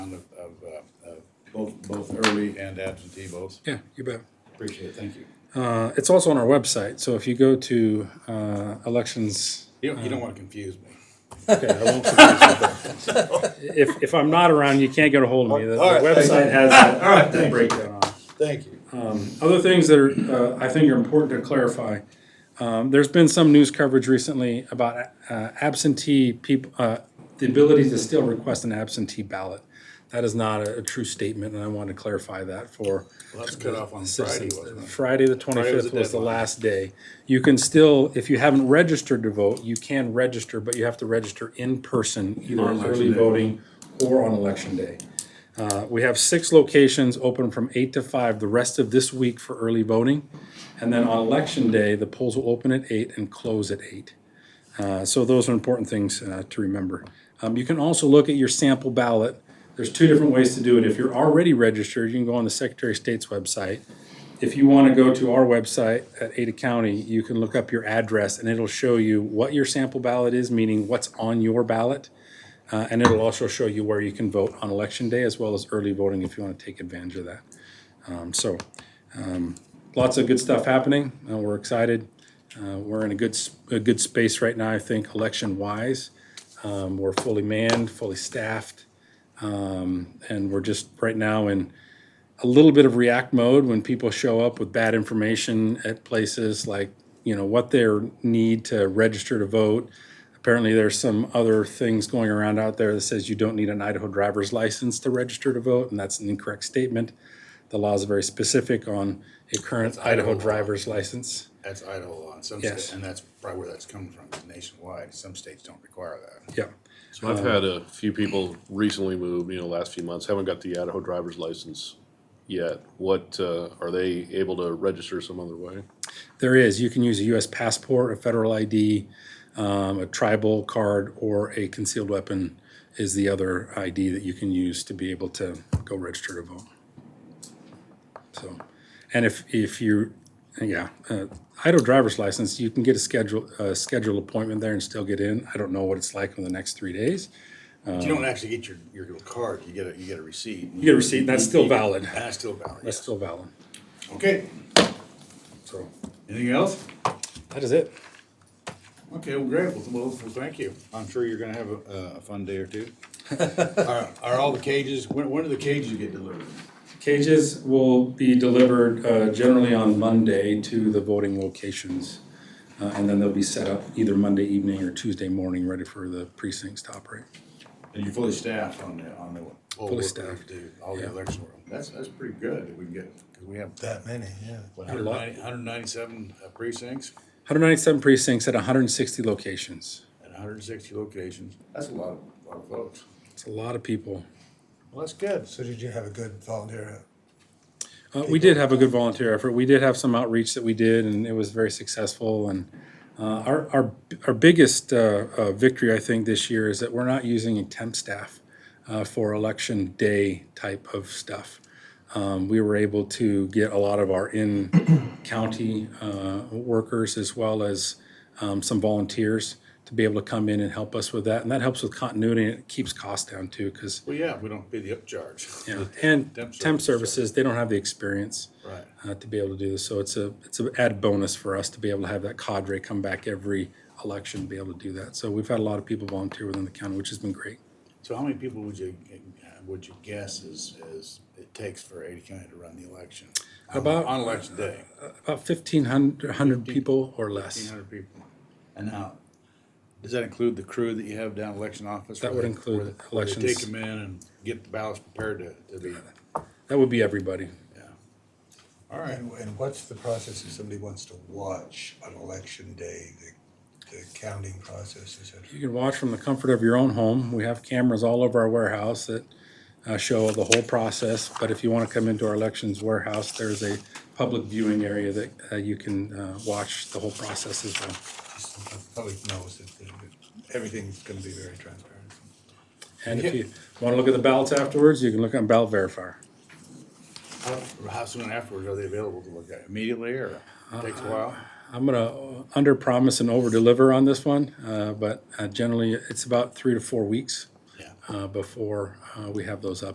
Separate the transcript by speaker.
Speaker 1: round of, of, uh, of both, both early and absentee votes.
Speaker 2: Yeah, you bet.
Speaker 1: Appreciate it, thank you.
Speaker 2: Uh, it's also on our website. So if you go to uh, elections,
Speaker 1: You don't, you don't
Speaker 2: Uh,
Speaker 1: wanna confuse me.
Speaker 2: okay, I won't confuse you, but if, if I'm not around, you can't get a hold of me. The, the
Speaker 1: All right, thank
Speaker 2: website
Speaker 1: you.
Speaker 2: has that,
Speaker 1: All right,
Speaker 2: that
Speaker 1: thank you.
Speaker 2: breakdown on it.
Speaker 1: Thank you.
Speaker 2: uh, Other things that are, uh, I think are important to clarify. Um, there's been some news coverage recently about uh, absentee people, uh, the ability to still request an absentee ballot. That is not a, a true statement, and I want to clarify that for
Speaker 1: Let's cut off on Friday,
Speaker 2: citizens.
Speaker 1: wasn't it? Friday
Speaker 2: Friday, the
Speaker 1: was the
Speaker 2: twenty-fifth was the
Speaker 1: deadline.
Speaker 2: last day. You can still, if you haven't registered to vote, you can register, but you have to register in person, either on
Speaker 1: election
Speaker 2: early
Speaker 1: day.
Speaker 2: voting or on election day. Uh, we have six locations open from eight to five the rest of this week for early voting. And then on election day, the polls will open at eight and close at eight. Uh, so those are important things uh, to remember. Um, you can also look at your sample ballot. There's two different ways to do it. If you're already registered, you can go on the Secretary of State's website. If you want to go to our website at Ada County, you can look up your address and it'll show you what your sample ballot is, meaning what's on your ballot. Uh, and it'll also show you where you can vote on election day as well as early voting if you want to take advantage of that. Um, so, um, lots of good stuff happening. Uh, we're excited. Uh, we're in a good, s- a good space right now, I think, election wise. Um, we're fully manned, fully staffed. Um, and we're just right now in a little bit of react mode when people show up with bad information at places like, you know, what their need to register to vote. Apparently, there's some other things going around out there that says you don't need an Idaho driver's license to register to vote, and that's an incorrect statement. The law is very specific on a current Idaho
Speaker 1: Idaho law.
Speaker 2: driver's license.
Speaker 1: That's Idaho law in some
Speaker 2: Yes.
Speaker 1: states, and that's probably where that's coming from, is nationwide. Some states don't require that.
Speaker 2: Yeah.
Speaker 3: So I've had a few people recently moved, you know, last few months, haven't got the Idaho driver's license yet. What, uh, are they able to register some other way?
Speaker 2: There is. You can use a U.S. passport, a federal ID, um, a tribal card, or a concealed weapon is the other ID that you can use to be able to go register to vote. So, and if if you, yeah, uh, Idaho driver's license, you can get a schedule a scheduled appointment there and still get in. I don't know what it's like in the next three days.
Speaker 1: You don't actually get your, your little card, you get a, you get a receipt. You
Speaker 2: Uh, get a receipt, that's still valid.
Speaker 1: That's still valid,
Speaker 2: That's
Speaker 1: yes.
Speaker 2: still valid.
Speaker 1: Okay,
Speaker 2: So
Speaker 1: anything else?
Speaker 2: that is it.
Speaker 1: Okay, well, great, well, well, well, thank you. I'm sure you're gonna have a, a fun day or two. Are, are all the cages, when, when do the cages get delivered?
Speaker 2: Cages will be delivered uh, generally on Monday to the voting locations. uh, And then they'll be set up either Monday evening or Tuesday morning, ready for the precincts to operate.
Speaker 1: And you're fully staffed on the, on the. poll
Speaker 2: Fully
Speaker 1: workers
Speaker 2: staffed.
Speaker 1: to do All the
Speaker 2: Yeah.
Speaker 1: election work. That's, that's pretty good that we can get, cause we have,
Speaker 4: That many, yeah.
Speaker 1: what, 190 197 uh, precincts
Speaker 2: 197 precincts at 160 locations.
Speaker 1: and hundred and sixty locations. That's a lot, of lot of votes.
Speaker 2: It's a lot of people.
Speaker 1: Well, that's good.
Speaker 4: So did you have a good volunteer?
Speaker 2: Uh, we did have a good volunteer effort. We did have some outreach that we did, and it was very successful. And uh, our our our biggest uh, uh, victory, I think, this year is that we're not using a temp staff uh, for election day type of stuff. Um, we were able to get a lot of our in county uh, workers as well as um, some volunteers to be able to come in and help us with that, and that helps with continuity and it keeps costs down too because.
Speaker 1: Well, yeah, we don't pay the upcharge.
Speaker 2: Yeah, and
Speaker 1: Temp
Speaker 2: temp
Speaker 1: services.
Speaker 2: services, they don't have the experience
Speaker 1: Right.
Speaker 2: uh, to be able to do this. So it's a, it's an added bonus for us to be able to have that cadre come back every election, be able to do that. So we've had a lot of people volunteer within the county, which has been great.
Speaker 1: So how many people would you, would you guess is, is, it takes for Ada County to run the election? On-
Speaker 2: About-
Speaker 1: On election day,
Speaker 2: About fifteen hundred, hundred people or
Speaker 1: eighteen
Speaker 2: less.
Speaker 1: hundred people. And now, does that include the crew that you have down election office?
Speaker 2: That
Speaker 1: where
Speaker 2: would
Speaker 1: they-
Speaker 2: include
Speaker 1: where they- where they
Speaker 2: elections.
Speaker 1: Take them in and get the ballots prepared to, to be,
Speaker 2: That would be everybody.
Speaker 1: yeah. All right,
Speaker 4: And, and what's the process if somebody wants to watch on election day, the, the counting process, et cetera?
Speaker 2: You can watch from the comfort of your own home. We have cameras all over our warehouse that uh, show the whole process. But if you want to come into our elections warehouse, there's a public viewing area that uh, you can uh, watch the whole process as well.
Speaker 4: Just so The public knows that the- that everything's gonna be very transparent.
Speaker 2: And if you want to look at the ballots afterwards, you can look on ballot verifier.
Speaker 1: how, how soon afterwards are they available to look at, immediately or takes
Speaker 2: Uh,
Speaker 1: a while?
Speaker 2: I'm gonna under promise and over deliver on this one, uh, but uh, generally it's about three to four weeks
Speaker 1: Yeah.
Speaker 2: uh, before uh, we have those up.